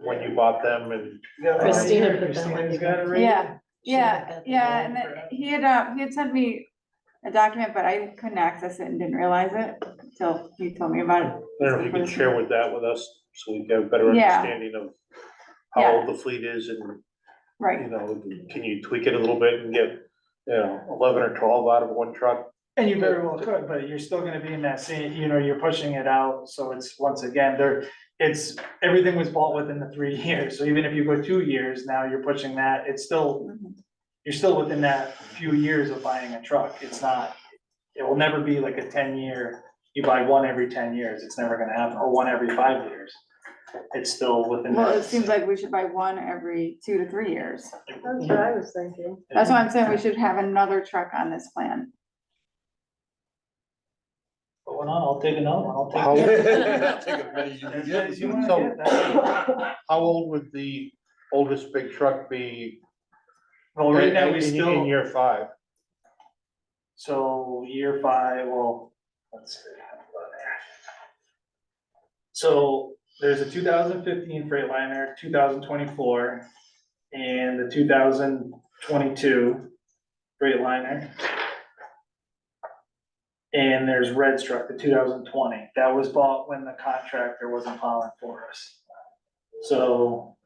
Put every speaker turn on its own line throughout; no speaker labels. when you bought them and
Christina put that
Christina's
one
got it right.
Yeah,
Should've
yeah,
got the
yeah,
loan
and
for
then
it.
he had, uh, he had sent me a document, but I couldn't access it and didn't realize it until he told me about it.
I don't know if you can share with that with us, so we get a better
Yeah.
understanding of how old the fleet is and, you
Right,
know, can you tweak it a little bit and get, you know, eleven or twelve out of one truck?
And you very well could, but you're still gonna be in that same, you know, you're pushing it out, so it's, once again, there, it's, everything was bought within the three years, so even if you go two years, now you're pushing that, it's still,
Mhm.
you're still within that few years of buying a truck, it's not, it will never be like a ten-year, you buy one every ten years, it's never gonna happen, or one every five years. It's still within.
well,
that-
it seems like we should buy one every two to three years.
That's what I was thinking.
That's why I'm saying we should have another truck on this plan.
Put one on, I'll take another one, I'll take.
How-
Take as many as you can
As
get.
many as you wanna
So-
get, that's-
How old would the oldest big truck be?
Well, right now,
in-
we
in-
still.
In year five,
So year five, well, let's see. So there's a two thousand fifteen Freightliner, two thousand twenty-four, and the two thousand twenty-two Freightliner. And there's Red Struck, the two thousand twenty, that was bought when the contractor wasn't filing for us. So,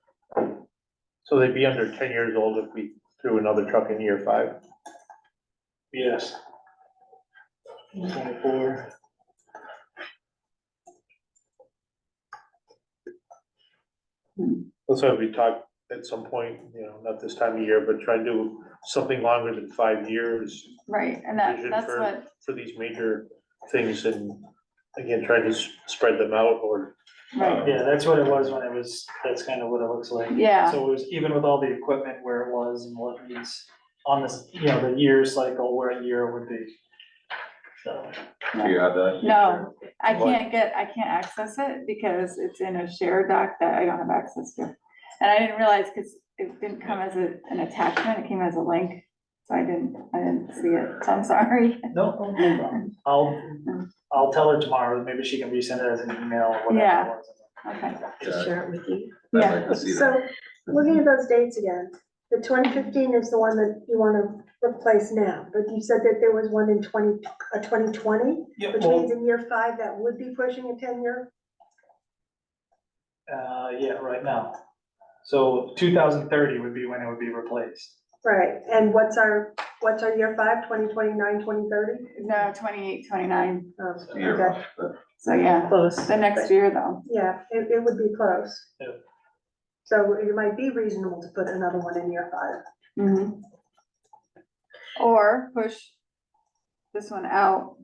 so they'd be under ten years old if we threw another truck in year five.
yes. Twenty-four.
That's why we talked at some point, you know, not this time of year, but try to do something longer than five years.
Right, and that,
vision
that's
for-
what,
For these major things and again, trying to s- spread them out or
right,
Yeah, that's what it was when it was, that's kind of what it looks
uh,
like.
yeah,
So it was even with all the equipment where it was and what it's on this, you know, the year cycle where a year would be. So,
Do you have that?
No. I can't get, I can't access it because it's in a shared doc that I don't have access to. And I didn't realize, because it didn't come as a, an attachment, it came as a link, so I didn't, I didn't see it, so I'm sorry.
no, no problem. I'll, I'll tell her tomorrow, maybe she can resend it as an email or
Yeah.
whatever. it was.
Okay,
Just share it with you.
I'd
yeah.
like to see that.
So, looking at those dates again, the twenty fifteen is the one that you wanna replace now, but you said that there was one in twenty, a twenty twenty,
Yeah,
which
well,
means in year five, that would be pushing a ten year.
uh, yeah, right now. So two thousand thirty would be when it would be replaced.
Right, and what's our, what's our year five, twenty twenty nine, twenty thirty? Oh,
No, twenty-eight, twenty-nine,
Year,
Okay,
but
so yeah,
Close.
the next year though,
yeah, it, it would be close.
Yeah.
So it might be reasonable to put another one in year five.
Mhm. Or push this one out,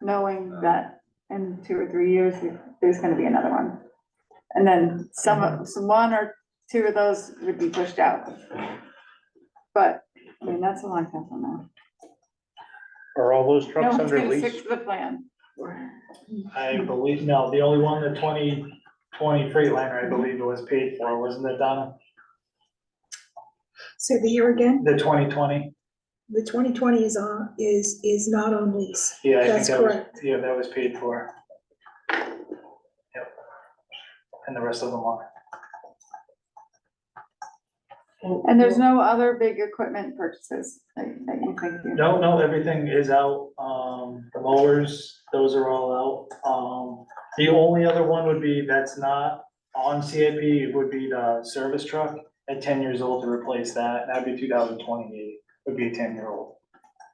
knowing
Uh.
that in two or three years, there's gonna be another one. And then some,
Mm-hmm.
of- some one or two of those would be pushed out. But, I mean, that's a long time from now.
are all those
No
trucks
one's
under
gonna
lease?
stick to the plan.
I believe, no, the only one, the twenty twenty Freightliner, I believe it was paid for, wasn't it, Donna?
So the year again,
The twenty twenty?
the twenty twenty is on, is, is not on lease.
Yeah, I think
That's
that was,
correct.
yeah, that was paid for. Yep. And the rest of them are.
And there's no other big equipment purchases that that you think you.
No, no, everything is out, um, the mowers, those are all out, um, the only other one would be, that's not on CIP, it would be the service truck at ten years old to replace that, that'd be two thousand twenty-eight, would be a ten-year-old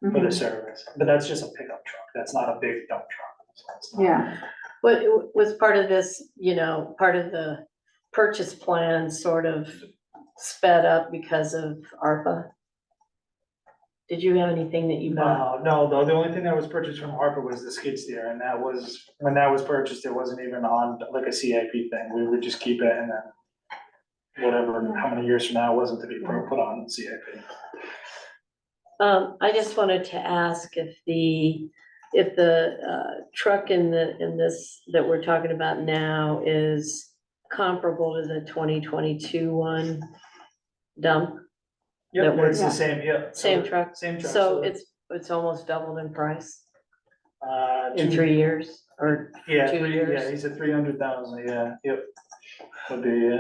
for
Mm-hmm.
the
Mhm.
service, but that's just a pickup truck, that's not a big dump truck. so it's not-
Yeah.
What, was part of this, you know, part of the purchase plan sort of sped up because of ARPA? Did you have anything that you bought?
No, no, the, the only thing that was purchased from Harper was the skid steer, and that was, when that was purchased, it wasn't even on like a CIP thing, we would just keep it and then whatever, how many years from now, it wasn't to be put put on CIP.
Um, I just wanted to ask if the, if the, uh, truck in the, in this, that we're talking about now is comparable to the twenty twenty-two one dump, That
Yep, it's
works.
the same, yep. so
same
the-
truck?
Same truck.
So
the-
it's, it's almost doubled in price
Uh,
in
two-
three years or
yeah,
two
three-
years.
Yeah, he said three hundred thousand, yeah, yep. Would be, yeah.